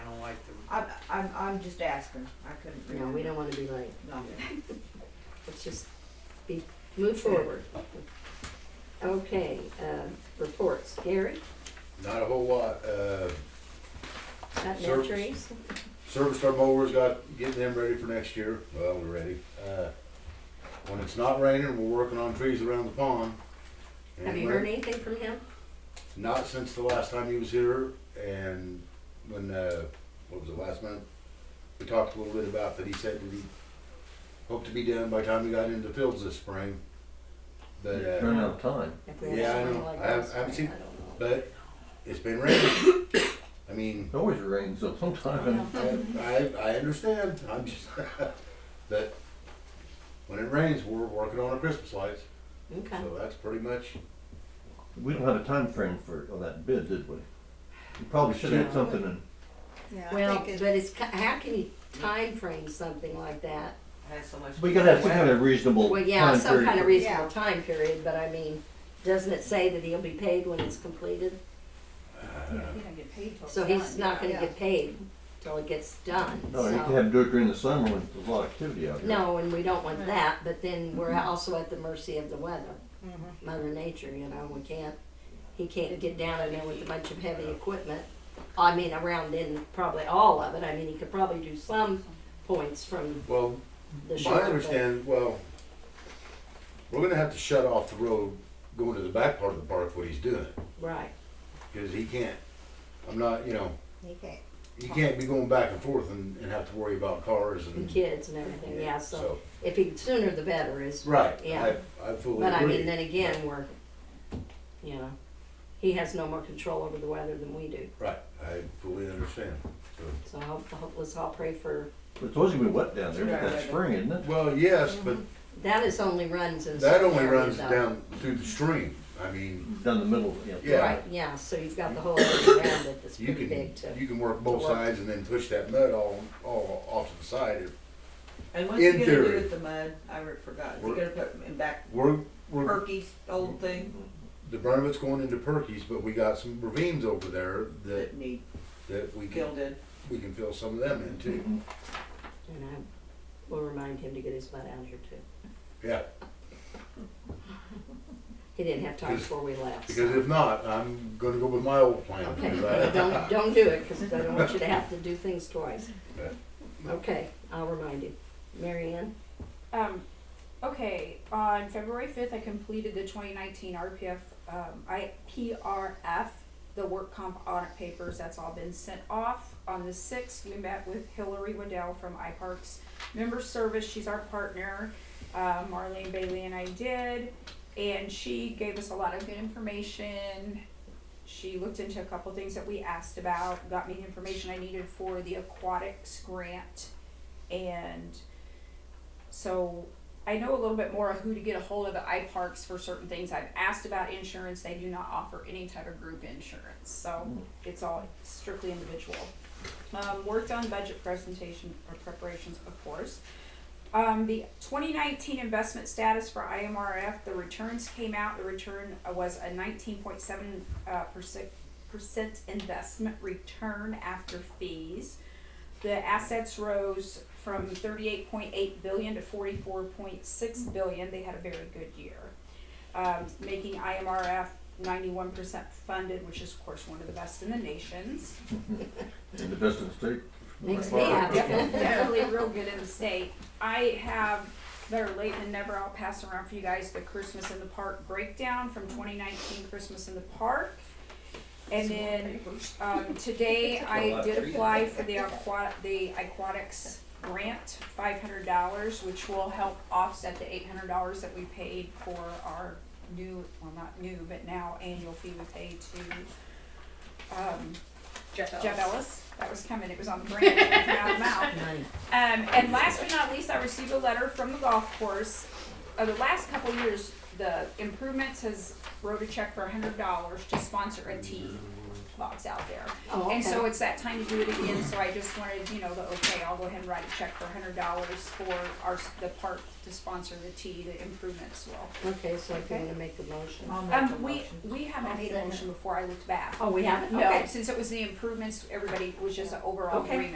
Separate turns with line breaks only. I'm, I'm, I'm just asking, I couldn't
No,
remember.
we don't wanna be late.
No.
Let's just be, move forward. Okay, um, reports. Gary,
Not a whole lot, uh,
got no
Service.
trees?
serviced our mowers, got, getting them ready for next year, well, we're ready. Uh, When it's not raining, we're working on trees around the pond.
Have you
And
heard anything from him?
Not since the last time he was here, and when, uh, what was it, last month? We talked a little bit about that, he said that he hoped to be done by the time we got into the fields this spring. But, uh.
Run out of time.
If we have
Yeah, I
something
know.
like
I have-
this,
I haven't seen-
don't know.
But it's been raining. I mean,
It always rains though sometimes.
I, I, I understand. I'm just, but when it rains, we're working on our Christmas lights.
Okay,
So that's pretty much,
We don't have a time frame for all that bid, did we? We probably should have had something in,
Yeah, I
well,
think it,
but it's, ki- how can you time frame something like that?
Has so much.
we gotta have some kind of reasonable
Well, yeah,
time
some kind of
period.
reasonable time period, but I mean, doesn't it say that he'll be paid when it's completed?
you don't get paid till
So
it's
he's
done.
not gonna
Yeah.
get paid till it gets done,
No, you can
so.
have do it during the summer when there's a lot of activity out here.
No, and we don't want
Right.
that, but then we're also at the mercy of the weather,
Mhm.
mother nature, you know, we can't, he can't get down in there with a bunch of heavy equipment. I mean, around in probably all of it, I mean, he could probably do some points from
well,
the
my
shore, but
understand, well, we're gonna have to shut off the road going to the back part of the park what he's doing.
Right,
Cause he can't, I'm not, you know,
You can't.
you can't be going back and forth and, and have to worry about cars
the
and.
kids and everything, yeah, so if he, sooner the better is
Right,
Yeah.
I, I fully agree.
But I mean, then again, we're, you know, he has no more control over the weather than we do.
Right, I fully understand.
So hope, hope, let's all pray for,
But It's always gonna be wet down there, but
Yeah,
that's
yeah.
spring, isn't it?
Well, yes,
Mm-hmm.
but
that is only runs in.
that
certain
only
areas,
runs
though.
down through the stream. I mean,
Down the middle, yeah.
Yeah.
Right, yeah, so you've got the whole area around it that's
you
pretty
can,
big to,
you can work both
to work.
sides and then push that mud all, all off to the side. If
And what's he
in
gonna do
theory.
with the mud? I re- forgot. Is he
We're-
gonna put it in back
We're, we're,
Perky's old thing
the brunt of it's going into Perky's, but we got some ravines over there that,
that need
that we can,
gilded?
we can fill some of them in too.
Mm-hmm. and I will remind him to get his butt out here too.
Yeah,
He didn't have time
Because-
before we left. so.
because if not, I'm gonna go with my old plan.
Okay,
because I-
don't, don't do it, cause I don't want you to have to do things twice. Okay, I'll remind you. Mary Ann?
Um, okay, on February fifth, I completed the twenty nineteen RPF, um, I, PRF, the work comp audit papers, that's all been sent off. On the sixth, we met with Hillary Waddell from iParks Member Service, she's our partner, uh, Marlene Bailey and I did, and she gave us a lot of good information. She looked into a couple things that we asked about, got me the information I needed for the aquatics grant, and so I know a little bit more of who to get a hold of at iParks for certain things. I've asked about insurance. They do not offer any type of group insurance, so it's all strictly individual. Um, worked on budget presentation or preparations, of course. Um, the 2019 investment status for IMRF, the returns came out. The return uh, was a 19.7 uh, percent, percent investment return after fees. The assets rose from thirty-eight point eight billion to forty-four point six billion, they had a very good year. Um, making IMRF ninety-one percent funded, which is of course one of the best in the nations.
And the best in the state.
Makes me
Well,
happy.
Definitely, definitely real good in the state. I have, better late than never, I'll pass around for you guys the Christmas in the Park breakdown from twenty nineteen Christmas in the Park. And then, um, today I did apply for the aqua, the aquatics grant, five hundred dollars, which will help offset the eight hundred dollars that we paid for our new, well, not new, but now annual fee we pay to, um, Jeff Ellis. That was coming, it was on the brand, out of the mouth.
Nine.
Um, and last but not least, I received a letter from the golf course. Uh, the last couple years, the improvements has wrote a check for hundred dollars to sponsor a tee box out there.
Oh,
And so
okay.
it's that time to do it again, so I just wanted, you know, the, okay, I'll go ahead and write a check for hundred dollars for our, s- the park to sponsor the tee, the improvements will.
Okay, so if you
Okay.
wanna make the motion.
I'll make a
Um, we,
motion.
we haven't made a motion before I looked back.
Oh, we haven't?
No,
Okay.
since it was the improvements, everybody was just an overall
Okay.
agreement.